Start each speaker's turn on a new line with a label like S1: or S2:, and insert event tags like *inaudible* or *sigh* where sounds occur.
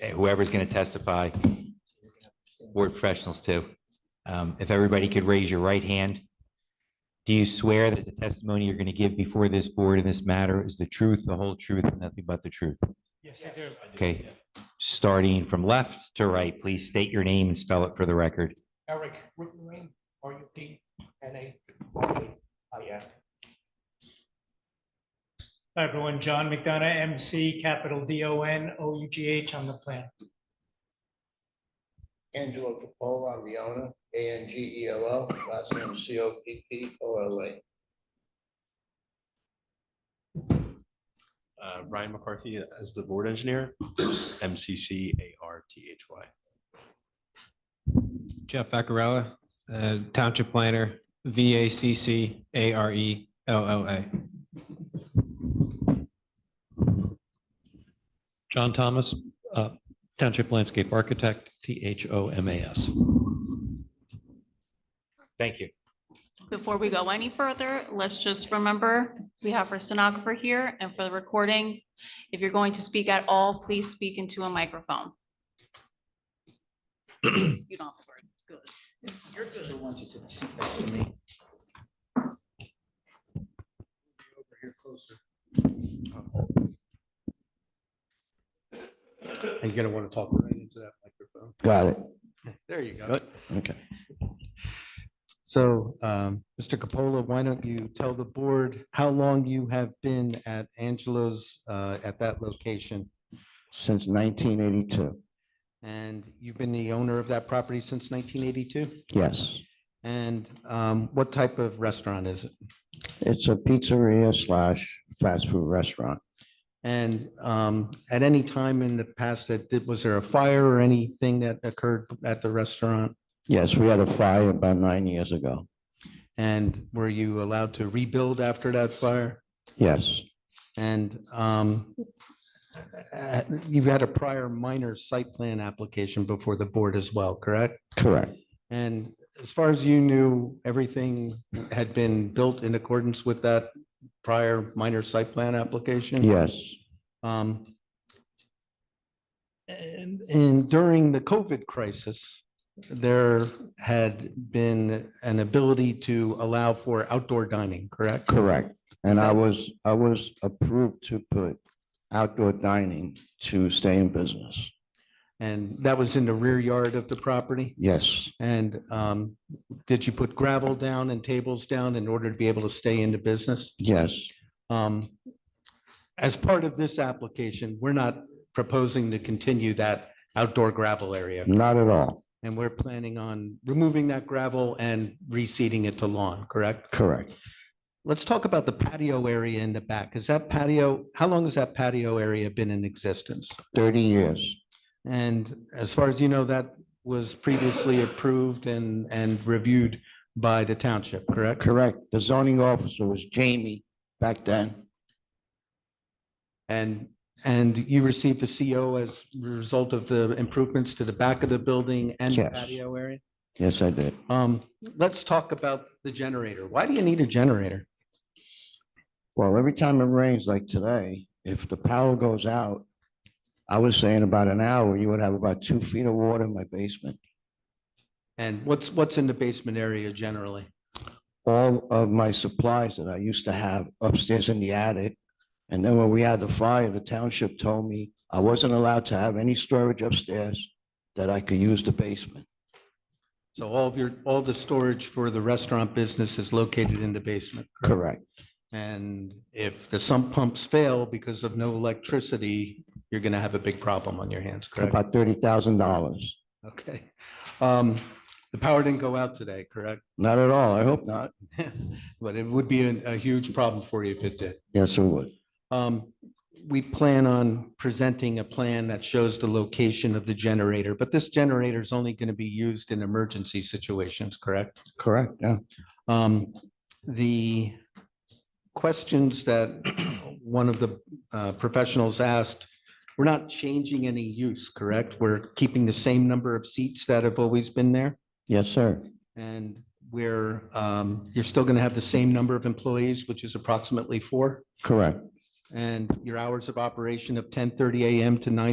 S1: eh, whoever's going to testify, board professionals too. Um, If everybody could raise your right hand. Do you swear that the testimony you're going to give before this board in this matter is the truth, the whole truth, and nothing but the truth?
S2: Yes, I do.
S1: Okay. Starting from left to right, please state your name and spell it for the record.
S2: Eric Ruttenrain, R U T N A I N. Hi, everyone. John McDonough, M C, capital D O N O U G H on the plan.
S3: Angelo Capola, I'm the owner, A N G E L O, last name C O P P O L A.
S4: Uh, Ryan McCarthy as the board engineer, M C C A R T H Y.
S5: Jeff Vaccarella, uh, Township Planner, V A C C A R E L L A.
S6: John Thomas, uh, Township Landscape Architect, T H O M A S.
S1: Thank you.
S7: Before we go any further, let's just remember, we have our stenographer here and for the recording, if you're going to speak at all, please speak into a microphone. You don't have to worry. It's good.
S4: You're gonna want to talk right into that microphone.
S3: Got it.
S4: There you go.
S8: Okay. So, um, Mr. Capola, why don't you tell the board how long you have been at Angelo's, uh, at that location?
S9: since 1982.
S8: And you've been the owner of that property since 1982?
S9: Yes,
S8: And um, what type of restaurant is it?
S9: it's a pizzeria slash fast food restaurant.
S8: And um, at any time in the past that, did- was there a fire or anything that occurred at the restaurant?
S9: Yes, we had a fire about nine years ago.
S8: And were you allowed to rebuild after that fire?
S9: Yes,
S8: And um, uh, you've had a prior minor site plan application before the board as well, correct?
S9: correct.
S8: And as far as you knew, everything had been built in accordance with that prior minor site plan application?
S9: Yes,
S8: Um, And, and during the COVID crisis, there had been an ability to allow for outdoor dining, correct?
S9: correct. And I was, I was approved to put outdoor dining to stay in business.
S8: And that was in the rear yard of the property?
S9: Yes,
S8: And um, did you put gravel down and tables down in order to be able to stay in the business?
S9: yes,
S8: Um, As part of this application, we're not proposing to continue that outdoor gravel area.
S9: not at all.
S8: And we're planning on removing that gravel and reseeding it to lawn, correct?
S9: Correct.
S8: Let's talk about the patio area in the back. Is that patio, how long has that patio area been in existence?
S9: 30 years.
S8: And as far as you know, that was previously approved and, and reviewed by the township, correct?
S9: Correct. The zoning officer was Jamie back then.
S8: And, and you received a CO as a result of the improvements to the back of the building and the
S9: Yes.
S8: patio area?
S9: Yes, I did.
S8: Um, let's talk about the generator. Why do you need a generator?
S9: Well, every time it rains like today, if the power goes out, I was saying about an hour, you would have about two feet of water in my basement.
S8: And what's, what's in the basement area generally?
S9: All of my supplies that I used to have upstairs in the attic. And then when we had the fire, the township told me I wasn't allowed to have any storage upstairs that I could use the basement.
S8: So all of your, all the storage for the restaurant business is located in the basement.
S9: Correct.
S8: And if the sump pumps fail because of no electricity, you're going to have a big problem on your hands, correct?
S9: About thirty thousand dollars.
S8: Okay. Um, the power didn't go out today, correct?
S9: Not at all. I hope not.
S8: *laughs* But it would be a, a huge problem for you if it did.
S9: Yes, it would.
S8: Um, we plan on presenting a plan that shows the location of the generator, but this generator is only going to be used in emergency situations, correct?
S9: Correct. Yeah.
S8: Um, the questions that *clears throat* one of the uh, professionals asked, we're not changing any use, correct? We're keeping the same number of seats that have always been there?
S9: Yes, sir.
S8: And we're, um, you're still going to have the same number of employees, which is approximately four?
S9: Correct.
S8: And your hours of operation of ten thirty AM to nine